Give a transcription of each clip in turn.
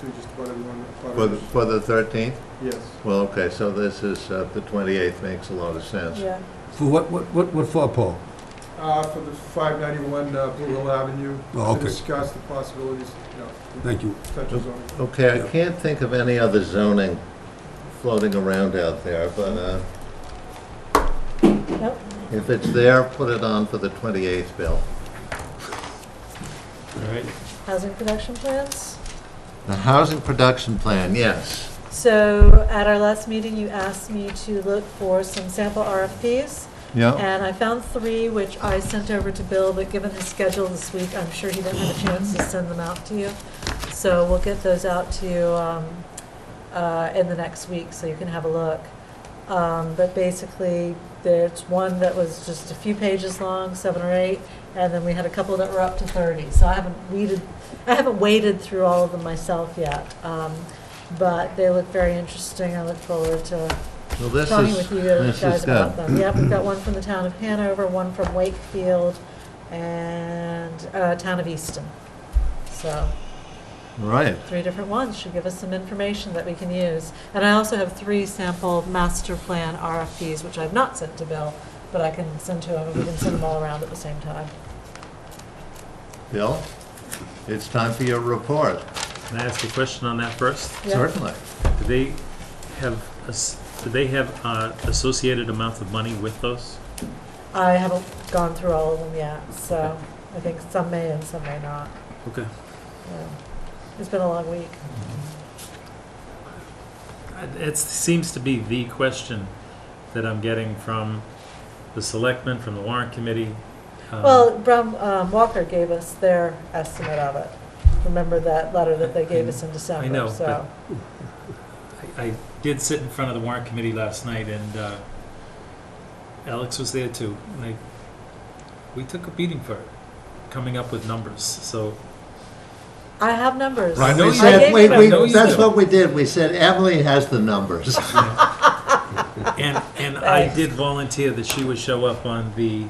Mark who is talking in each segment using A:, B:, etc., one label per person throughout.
A: to just about everyone. about
B: For,
A: us.
B: for the 13th?
A: Yes.
B: Well, okay, so this is, uh, the 28th makes a lot of sense.
C: Yeah,
D: For what, what, what, what for, Paul?
A: Uh, for the five ninety-one uh, Blue Hill Avenue.
D: Oh, okay.
A: To discuss the possibilities, you know,
D: Thank you.
A: potential zoning.
B: Okay,
D: Yeah.
B: I can't think of any other zoning floating around out there, but uh,
C: nope.
B: if it's there, put it on for the 28th, Bill.
E: All right.
C: Housing production plans.
B: The housing production plan, yes.
C: So at our last meeting, you asked me to look for some sample RFPs,
B: Yeah.
C: and I found three, which I sent over to Bill, but given his schedule this week, I'm sure he didn't have a chance to send them out to you. So we'll get those out to you um, uh, in the next week, so you can have a look. Um, But basically, there's one that was just a few pages long, seven or eight, and then we had a couple that were up to 30. So I haven't weeded, I haven't waded through all of them myself yet. Um, But they look very interesting. I look forward to
B: Well, this
C: talking
B: is,
C: with you
B: this
C: guys
B: is
C: about
B: good.
C: them. Yep, we've got one from the town of Hanover, one from Wakefield, and uh, town of Easton. So
B: Right.
C: three different ones should give us some information that we can use. And I also have three sample master plan RFPs, which I've not sent to Bill, but I can send to him, and we can send them all around at the same time.
B: Bill, it's time for your report,
E: Can I ask a question on that first?
C: Yeah.
B: certainly.
E: Do they have, as- do they have uh, associated amounts of money with those?
C: I haven't gone through all of them yet, so I think some may and some may not.
E: Okay.
C: Yeah. It's been a long week.
E: Uh, It seems to be the question that I'm getting from the selectmen, from the warrant committee. um,
C: Well, Brown, um, Walker gave us their estimate of it. Remember that letter that they gave us in
E: I
C: December,
E: know, but-
C: so.
E: I I did sit in front of the warrant committee last night, and uh, Alex was there too. And I, we took a beating for it, coming up with numbers, so.
C: I have numbers.
E: Right,
B: We
E: no,
C: I
E: you
B: said,
C: gave
B: wait,
C: them.
E: I know
B: wait,
E: you
B: that's
E: do.
B: what we did, we said Emily has the numbers.
E: And, and I
C: Thanks.
E: did volunteer that she would show up on the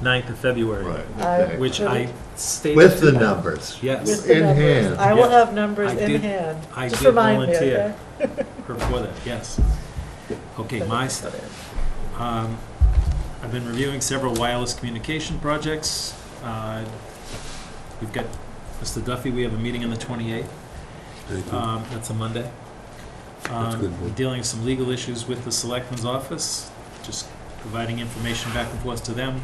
E: 9th of February,
C: okay.
E: which I stated.
B: With the
E: to-
B: numbers.
E: Yes,
C: With the
B: In
C: numbers.
B: hand.
C: I will
E: Yeah.
C: have numbers
E: I
C: in
E: did-
C: hand.
E: I
C: Just
E: did
C: remind me,
E: volunteer.
C: okay?
E: before that, yes. Okay, my stuff. Um, I've been reviewing several wireless communication projects. Uh, We've got, Mr. Duffy, we have a meeting on the 28th.
D: Thank you.
E: Um, That's a Monday.
D: That's
E: Um,
D: good, Bill.
E: Dealing with some legal issues with the Selectmen's Office, just providing information back and forth to them.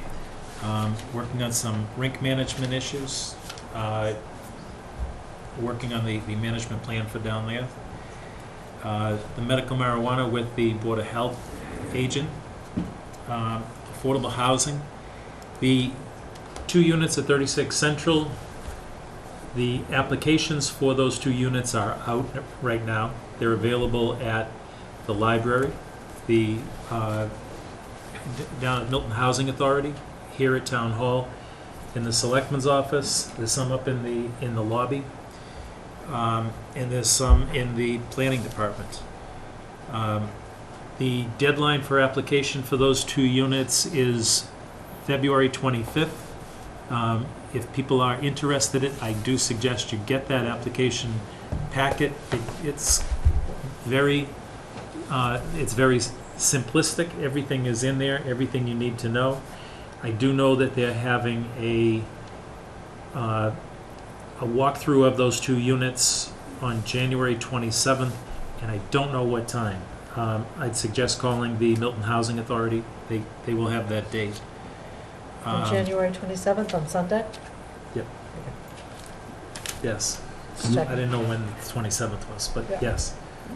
E: Um, Working on some rink management issues, uh, working on the, the management plan for down there. Uh, The medical marijuana with the Board of Health agent. Um, Affordable housing. The two units at 36 Central, the applications for those two units are out right now. They're available at the library, the, uh, d- down at Milton Housing Authority, here at Town Hall, in the Selectman's Office, there's some up in the, in the lobby, um, and there's some in the Planning Department. Um, The deadline for application for those two units is February 25th. Um, If people are interested, in it, I do suggest you get that application packet. It- It's very, uh, it's very simplistic. Everything is in there, everything you need to know. I do know that they're having a, uh, a walkthrough of those two units on January 27th, and I don't know what time. Um, I'd suggest calling the Milton Housing Authority. They, they will have that date.
C: On
E: Um,
C: January 27th, on Sunday?
E: Yes.
C: Just
E: I
C: checking.
E: didn't know when the twenty-seventh was, but
C: Yeah.
E: yes.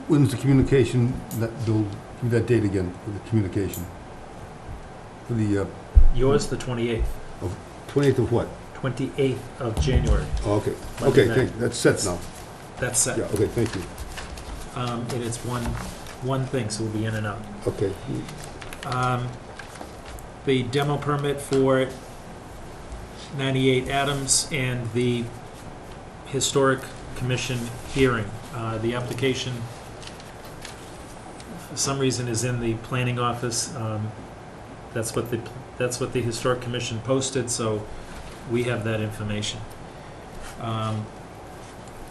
D: When's the communication, that, Bill, give me that date again, for the communication? For the uh,
E: Yours, the twenty-eighth,
D: 28th of what?
E: twenty-eighth of January.
D: Oh, Okay,
E: Monday
D: okay,
E: night.
D: thank, that's set now.
E: That's set.
D: Yeah, okay, thank you.
E: Um, and it's one, one thing, so we'll be in and out.
D: Okay,
E: Um, the demo permit for ninety-eight Adams and the historic commission hearing. Uh, the application, for some reason, is in the planning office. Um, that's what the, that's what the historic commission posted, so we have that information. Um,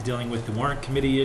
E: dealing with the warrant committee